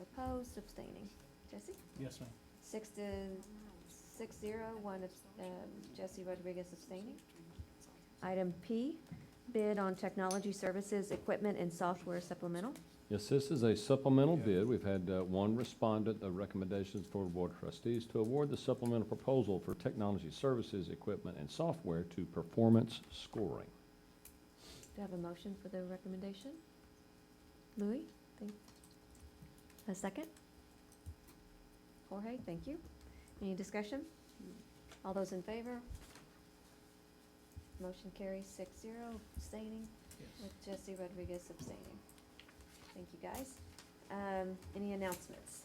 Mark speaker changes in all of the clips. Speaker 1: opposed, abstaining. Jesse?
Speaker 2: Yes, ma'am.
Speaker 1: Six to, six zero, one, abs- um, Jesse Rodriguez abstaining. Item P, bid on technology services, equipment, and software supplemental.
Speaker 3: Yes, this is a supplemental
Speaker 2: Yeah.
Speaker 3: bid. We've had uh, one respondent, the recommendations for the Board of Trustees to award the supplemental proposal for technology services, equipment, and software to performance scoring.
Speaker 1: Do I have a motion for the recommendation? Louis, thank, a second? Jorge, thank you. Any discussion? All those in favor? Motion carries six zero, abstaining, with Jesse Rodriguez abstaining. Thank you, guys. Um, any announcements?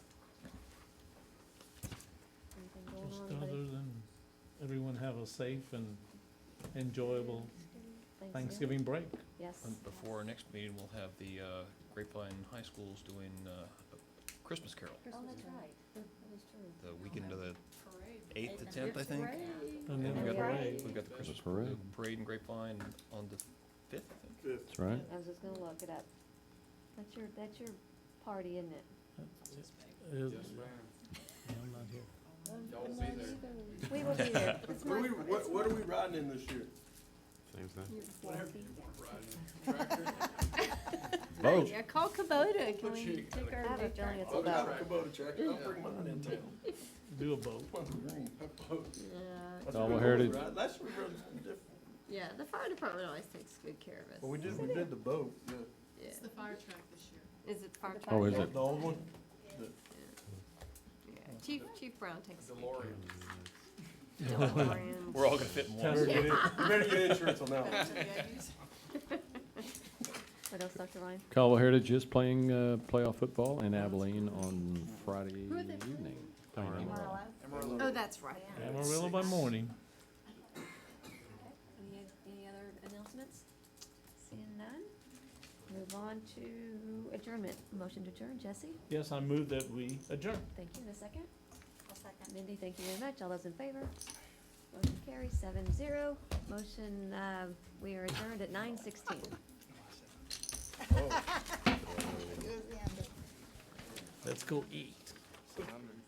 Speaker 1: Anything going
Speaker 2: Just
Speaker 1: on, buddy?
Speaker 2: other than everyone have a safe and enjoyable Thanksgiving break.
Speaker 1: Yes.
Speaker 4: And Before our next meeting, we'll have the uh, Grapevine High Schools doing uh, a Christmas Carol,
Speaker 1: Oh, that's right. That is true.
Speaker 4: the weekend of the eighth to tenth, I think.
Speaker 2: And then
Speaker 4: And
Speaker 2: the
Speaker 4: we've got-
Speaker 2: parade.
Speaker 4: We've got the Christmas
Speaker 3: Parade.
Speaker 4: parade in Grapevine on the fifth, I think.
Speaker 3: That's right.
Speaker 1: I was just gonna look it up. That's your, that's your party, isn't it?
Speaker 2: Is- I'm not here.
Speaker 5: Um,
Speaker 1: We will be there.
Speaker 6: What, we- what, what are we riding in this year?
Speaker 3: Vote.
Speaker 5: Yeah, call Kubota, can we
Speaker 6: you
Speaker 5: take
Speaker 1: I
Speaker 5: our
Speaker 1: have a
Speaker 5: picture?
Speaker 1: feeling it's
Speaker 6: I'll be
Speaker 1: about,
Speaker 6: Kubota tractor, I'll bring mine in town.
Speaker 2: Do a boat.
Speaker 6: One green, a boat.
Speaker 5: Yeah,
Speaker 6: That's
Speaker 3: Dollar
Speaker 6: what we
Speaker 3: Heritage.
Speaker 6: ride. Last year we rode something different.
Speaker 5: yeah, the fire department always takes good care of us.
Speaker 6: Well, we did, we did the boat, yeah.
Speaker 5: Yeah.
Speaker 7: It's the fire truck this year.
Speaker 5: Is it fire
Speaker 1: The
Speaker 5: truck?
Speaker 3: Oh, is it?
Speaker 6: The old one?
Speaker 5: Yeah, Chief, Chief Brown takes good care
Speaker 4: DeLorean.
Speaker 5: of us. DeLorean.
Speaker 4: We're all gonna fit in
Speaker 2: Tell her
Speaker 4: one.
Speaker 2: to get it.
Speaker 6: You better get insurance on that one.
Speaker 1: what else, Dr. Ryan?
Speaker 3: Caldwell Heritage is playing uh, playoff football in Abilene on Friday
Speaker 5: Who are they playing?
Speaker 3: evening. Playing
Speaker 4: Amarillo.
Speaker 3: Amarillo.
Speaker 5: Oh, that's right.
Speaker 2: Amarillo by morning.
Speaker 1: Any, any other announcements? Seeing none? Move on to adjournment. Motion to adjourn, Jesse?
Speaker 2: Yes, I move that we adjourn.
Speaker 1: Thank you, in a second. Mindy, thank you very much. All those in favor? Motion carries seven zero. Motion, uh, we are adjourned at nine sixteen.
Speaker 2: Let's go eat.
Speaker 6: So I'm in-